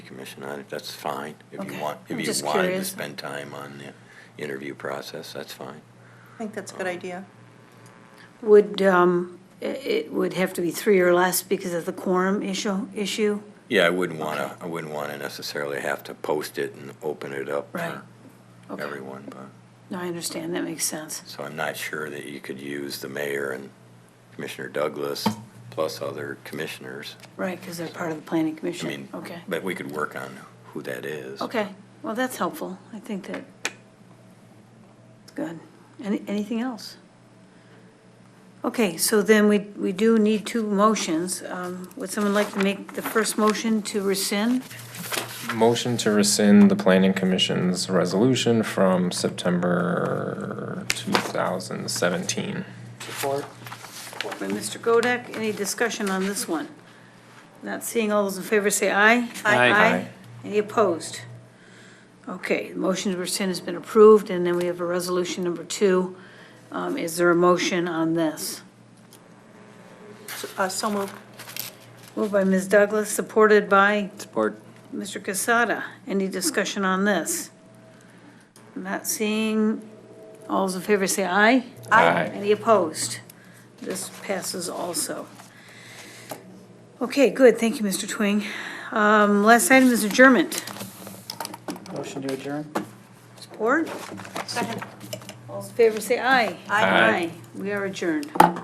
commission on it, that's fine. If you Okay. want, I'm if just you wanted to curious. spend time on the interview process, that's fine. I think that's a good idea. Would, um, i- it would have to be three or less because of the quorum issue, issue? Yeah, I wouldn't want to, I wouldn't want to necessarily have to post it and open it up Right. for Okay. everyone, but, No, I understand, that makes sense. so I'm not sure that you could use the mayor and Commissioner Douglas plus other commissioners. Right, because they're part of the planning I mean, commission. Okay. but we could work on who that is. Okay, well, that's helpful. I think that, good. Any, anything else? Okay, so then we, we do need two motions. Um, Would someone like to make the first motion to rescind? Motion to rescind the planning commission's resolution from September 2017. Support by Mr. Godek. Any discussion on this one? Not seeing all those in favor, say aye. Aye. Aye. Any opposed? Okay, the motion to rescind has been approved, and then we have a resolution number two. Um, Is there a motion on this? Uh, So moved. Moved by Ms. Douglas, supported by Support. Mr. Casada. Any discussion on this? Not seeing, all those in favor say aye. Aye. Any opposed? This passes also. Okay, good, thank you, Mr. Twing. Um, Last item is adjournment. Motion to adjourn? Support? Second. All those in favor say aye. Aye. We are adjourned.